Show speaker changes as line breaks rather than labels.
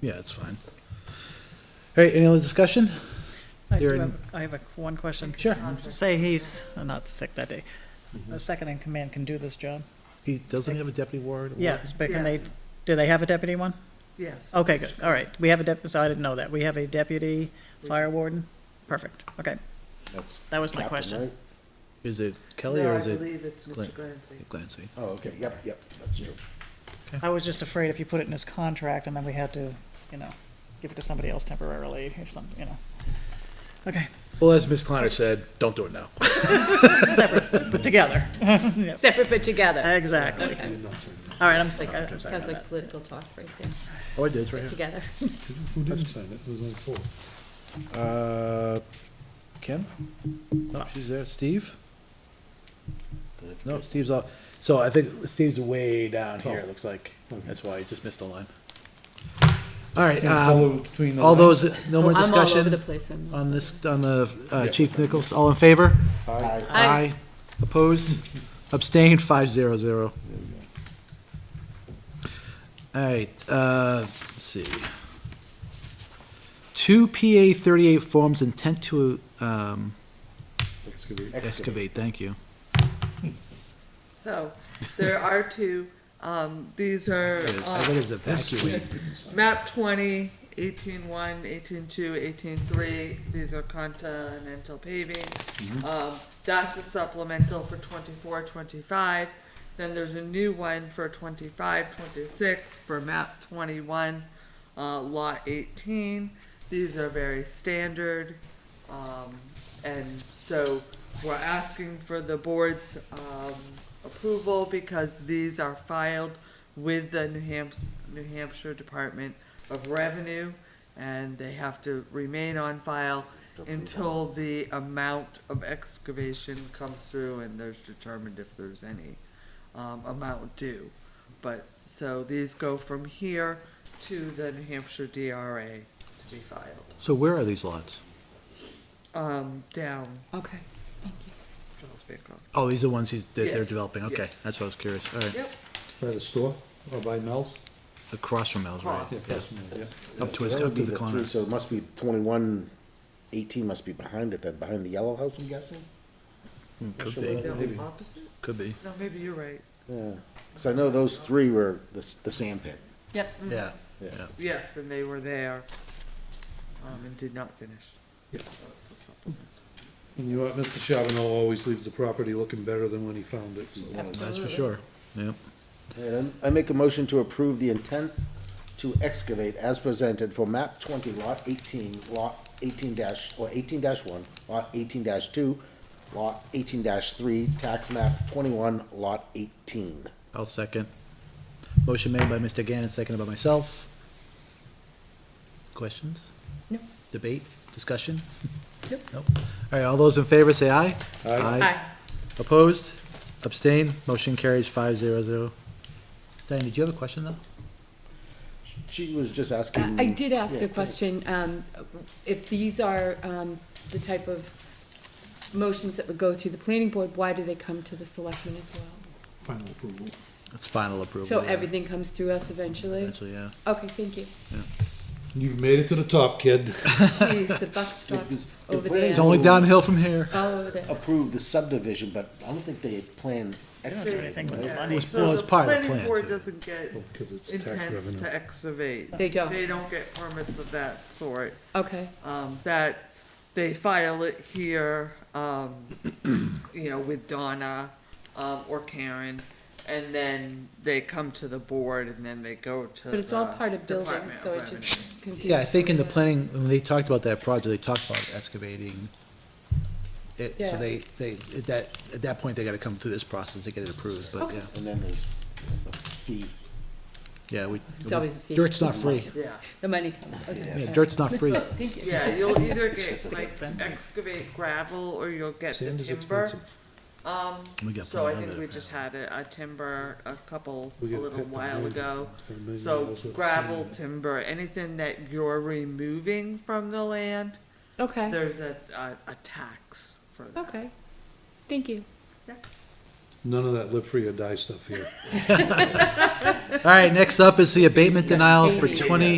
Yeah, it's fine. All right, any other discussion?
I do
You're in-
have, I have a, one question.
Sure.
Say he's uh, not sick that day. A second in command can do this job?
He doesn't have a deputy ward? or-
Yeah, but can they,
Yes.
do they have a deputy one?
Yes.
Okay, good, all right. We have a dep, so I didn't know that. We have a deputy fire warden? Perfect, okay.
That's.
That was my
captain,
question.
right?
Is it Kelly
No,
or
I
is it
believe it's Mr.
Glenn?
Glancy.
Glancy?
Oh, okay, yep, yep, that's true.
I was just afraid if you put it in his contract and then we had to, you know, give it to somebody else temporarily if some, you know. Okay,
Well, as Ms. Kleiner said, don't do it now.
separate, but together.
Separate but together.
Exactly.
Okay.
All right, I'm sick, I'm sorry
Sounds
about
like
that.
political talk right there,
Oh, it is, right here.
together.
Who didn't sign it? It was only four.
Uh, Kim? Oh,
No.
She's there. Steve? No, Steve's all, so I think Steve's way down here, it looks like. That's why he just missed a line. All right, um,
between
all those, no more
I'm all over the
discussion
place in
on this, on the, uh, Chief Nichols, all in favor?
Aye.
Opposed? Abstained, five zero zero. All right, uh, let's see. Two PA thirty-eight forms intent to, um, excavate, thank you.
So, there are two, um, these are,
I
um,
think it's evacuate.
map twenty, eighteen one, eighteen two, eighteen three, these are continental paving. Um, that's a supplemental for twenty-four, twenty-five, then there's a new one for twenty-five, twenty-six, for map twenty-one, uh, lot eighteen, these are very standard. Um, and so, we're asking for the board's, um, approval because these are filed with the New Hampshire, New Hampshire Department of Revenue, and they have to remain on file until the amount of excavation comes through and there's determined if there's any, um, amount due. But, so these go from here to the New Hampshire DRA to be filed,
So where are these lots?
um, down
Okay, thank you.
Charles Bancroft.
Oh, these are the ones he's, that they're
Yes,
developing, okay,
yes.
that's what I was curious, all right.
Yep,
By the store or by Mel's?
Across from Mel's, right?
Across. Yeah,
Yeah. Up to his,
So that would
up to
be
the corner.
three, So it must be twenty-one, eighteen must be behind it then, behind the yellow house, I'm guessing?
Mm, Could
Sure,
be,
no, opposite?
could be,
No, maybe you're right.
Yeah, cause I know those three were the, s- the sand pit.
Yep.
yeah.
Yes, and they were there, um, and did not finish. So it's a supplement.
And you know what, Mr. Charbonneau always leaves the property looking better than when he found it, so. uh,
That's for sure, yeah.
And I make a motion to approve the intent to excavate as presented for map twenty, lot eighteen, lot eighteen dash, or eighteen dash one, lot eighteen dash two, lot eighteen dash three, tax map twenty-one, lot eighteen.
I'll second. Motion made by Mr. Gannon, seconded by myself. Questions?
No.
Debate, discussion?
Nope.
Nope. All right, all those in favor say aye.
Aye.
Opposed? Abstained? Motion carries five zero zero. Diane, did you have a question though?
She was just
Uh,
asking.
I did ask
Yeah.
a question, um, if these are, um, the type of motions that would go through the planning board, why do they come to the selectmen as well?
Final approval.
It's final approval.
So
yeah.
everything comes through us eventually?
Eventually, yeah.
Okay, thank you.
You've made it to the top, kid.
Jeez, the buck stops over there.
It's only downhill from here.
All over there.
Approve the subdivision, but I don't think they had planned
Don't do
excavating.
anything with the
Yeah,
money.
so
well, it's part of the
Planning
plan,
board
too.
doesn't get
Because it's tax
intents
revenue.
to excavate.
They don't.
They don't get permits of that sort.
Okay,
um, that they file it here, um, you know, with Donna, um, or Karen, and then they come to the board and then they go to
but it's all
Uh, the
part of building,
Department
so
of
it
Revenue.
just confused.
Yeah, I think in the
me.
planning, when they talked about that project, they talked about excavating. It, so
Yeah.
they, they, at that, at that point, they gotta come through this process to get it approved, but
Okay.
yeah,
And then there's a fee.
yeah, we.
It's always a fee.
Dirt's not free.
Yeah,
The money comes, okay.
Yeah, dirt's not free.
Thank you.
yeah, you'll either get
just
like excavate gravel or you'll get the
Sand is
timber.
expensive.
Um,
We got
so I
plenty
think
of
we
it.
just had a, a timber a couple, a
We get
little
hit by
while
rain.
ago.
It's got a million
So
dollars worth of
gravel,
sand in it.
timber, anything that you're removing from the land,
Okay,
there's a, a, a tax for that.
okay, thank you.
None of that live free or die stuff here.
All right, next up is the abatement denial for
Maybe.
twenty